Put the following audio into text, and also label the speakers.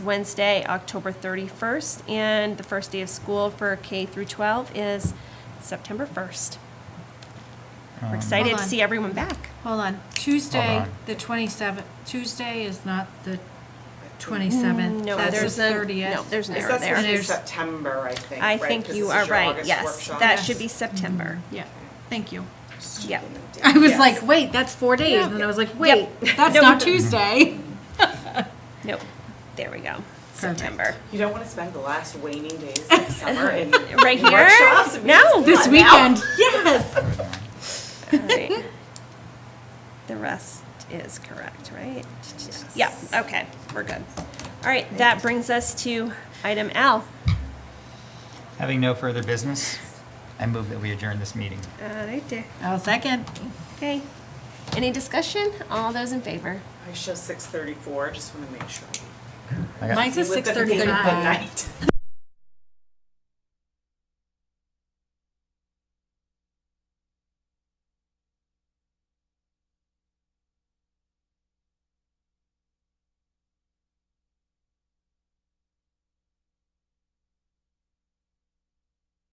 Speaker 1: Wednesday, October 31st, and the first day of school for K through 12 is September 1st.
Speaker 2: Um,
Speaker 1: We're excited
Speaker 3: Um, Hold
Speaker 1: to
Speaker 3: on.
Speaker 1: see everyone back.
Speaker 3: Hold on, Tuesday,
Speaker 2: Hold on.
Speaker 3: the 27th, Tuesday is not the 27th.
Speaker 1: No,
Speaker 3: That's
Speaker 1: there's
Speaker 3: the
Speaker 1: a- No,
Speaker 3: 30th.
Speaker 1: there's an
Speaker 4: Is
Speaker 1: error
Speaker 4: that supposed to
Speaker 1: there.
Speaker 4: be
Speaker 3: There's-
Speaker 4: September, I think,
Speaker 1: I
Speaker 4: right?
Speaker 1: think
Speaker 4: 'Cause
Speaker 1: you
Speaker 4: this
Speaker 1: are
Speaker 4: is your
Speaker 1: right,
Speaker 4: August
Speaker 1: yes.
Speaker 4: workshop.
Speaker 1: That
Speaker 3: Yes.
Speaker 1: should be September.
Speaker 3: Yeah, thank you.
Speaker 1: Yeah.
Speaker 3: I was
Speaker 4: Yes.
Speaker 3: like, wait, that's four days, and then I was like, wait, that's
Speaker 1: No.
Speaker 3: not Tuesday. Mm-hmm.
Speaker 1: Nope, there we go, September.
Speaker 4: You don't want to spend the last waning days of summer in
Speaker 1: Right here?
Speaker 4: workshops? I mean,
Speaker 1: No.
Speaker 3: This
Speaker 4: Come on now.
Speaker 3: weekend, yes.
Speaker 1: All right. The rest is correct, right? Yeah, okay, we're good. All right, that brings us to item L.
Speaker 2: Having no further business, I move that we adjourn this meeting.
Speaker 1: All right, there.
Speaker 3: I'll second.
Speaker 1: Okay. Any discussion? All those in favor?
Speaker 4: I show six thirty-four, just want to make sure.
Speaker 2: I got-
Speaker 3: Mine's a
Speaker 4: With the- with the
Speaker 3: 6:35.
Speaker 4: night.